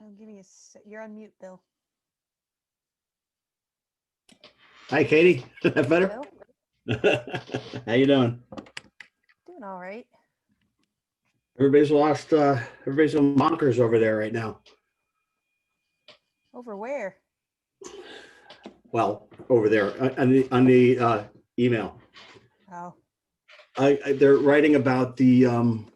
Oh, give me a, se- you're on mute, Bill. Hi, Katie. Is that better? Hello? How you doing? Doing all right. Everybody's lost, uh, everybody's on monikers over there right now. Over where? Well, over there on- on the, on the, uh, email. Oh, I, I, they're writing about the, um,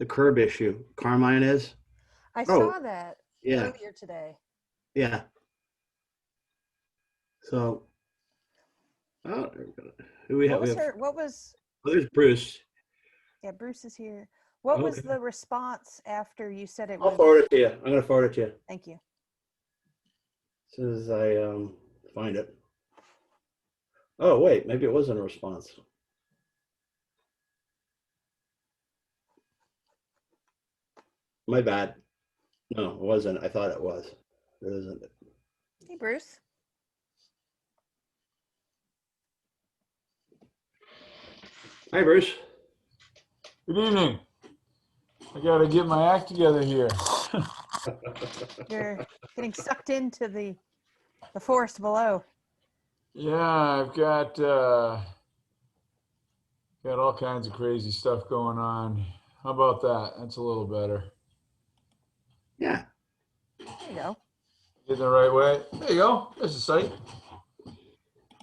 the curb issue. Carmine is? I Oh, saw that Yeah, earlier today. yeah. So. Oh, who we What have? was We have, her, what was, oh, there's Bruce. yeah, Bruce is here. What was Okay. the response after you said it I'll was? forward it to you. I'm gonna forward it to you. Thank you. As soon as I um, find it. Oh, wait, maybe it wasn't a response. My bad. No, it wasn't. I thought it was. It isn't. Hey, Bruce. Hi, Bruce. Good evening. I gotta get my act together here. You're getting sucked into the, the forest below. yeah, I've got uh, got all kinds of crazy stuff going on. How about that? That's a little better. Yeah. There you go. Getting the right way. There you go. There's the site.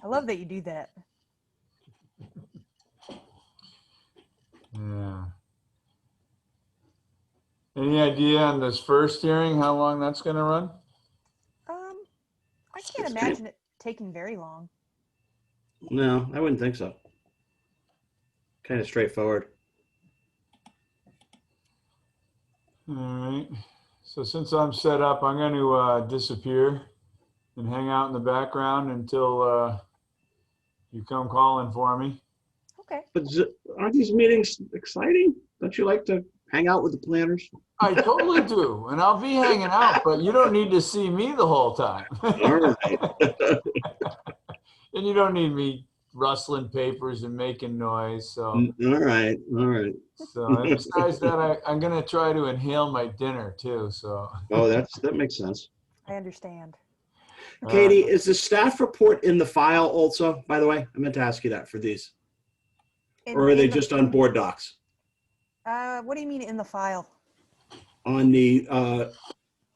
I love that you do that. Yeah. Any idea on this first hearing how long that's gonna run? Um, I can't It's kind- imagine it taking very long. No, I wouldn't think so. Kind of straightforward. All right. So since I'm set up, I'm going to uh, disappear and hang out in the background until uh, you come calling for me. Okay. But z- aren't these meetings exciting? Don't you like to hang out with the planners? I totally do, and I'll be hanging out, but you don't need to see me the whole time. All right. and you don't need me rustling papers and making noise. So, All right. All right. so and besides that, I, I'm going to try to inhale my dinner too. So, Oh, that's, that makes sense. I understand. uh, Katie, is the staff report in the file also, by the way? I meant to ask you that for these. In- Or are they in the- just on board docs? Uh, what do you mean in the file? On the, uh, On the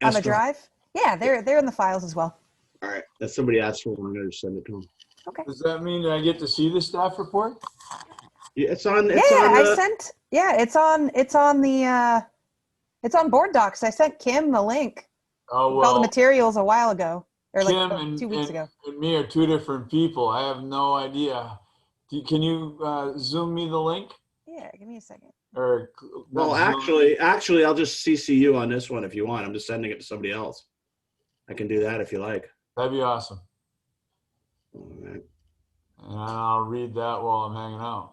escrow? drive? Yeah, they're, they're in the files as well. All right, that somebody asked for, one, I'm gonna send it to them. does that mean that I get to see the staff report? Yeah, It's on, Yeah, it's on, I uh, sent. Yeah, it's on. It's on the. Uh, it's on board docs. I sent Kim the link. Oh, with all the well. materials a while ago, or like Kim uh, and- two weeks and- ago. and me are two different people. I have no idea. Do- Can you uh, zoom me the link? Yeah, give me a second. Or well, not Zoom. actually, actually, I'll just CC you on this one if you want. I'm just sending it to somebody else. I can do that if you like. that'd be awesome. All right. And I'll read that while I'm hanging out.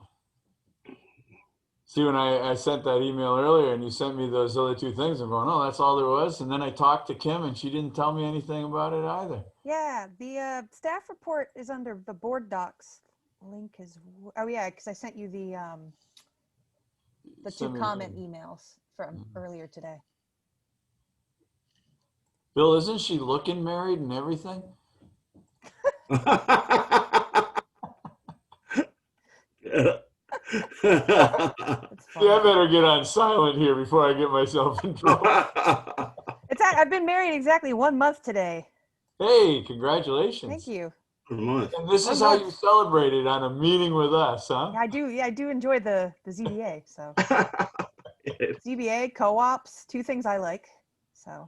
See, when I, I sent that email earlier and you sent me those other two things, I'm going, oh, that's all there was. And then I talked to Kim and she didn't tell me anything about it either. Yeah, the uh, staff report is under the board docs link is. Oh yeah, because I sent you the um, the two Send me comment the- emails from Mhm. earlier today. Bill, isn't she looking married and everything? It's Yeah, I fun. better get on silent here before I get myself in trouble. It's a- I've been married exactly one month today. hey, congratulations. Thank you. For a month. And this One is how month. you celebrate it on a meeting with us, huh? I do. Yeah, I do enjoy the the ZBA. So ZBA co-ops, two things I like. So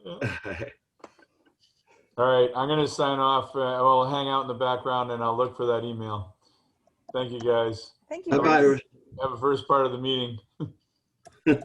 All right, I'm gonna sign off. Uh, I'll hang out in the background and I'll look for that email. Thank you, guys. thank you. Bye-bye. Bruce. everyone. Have a first part of the meeting.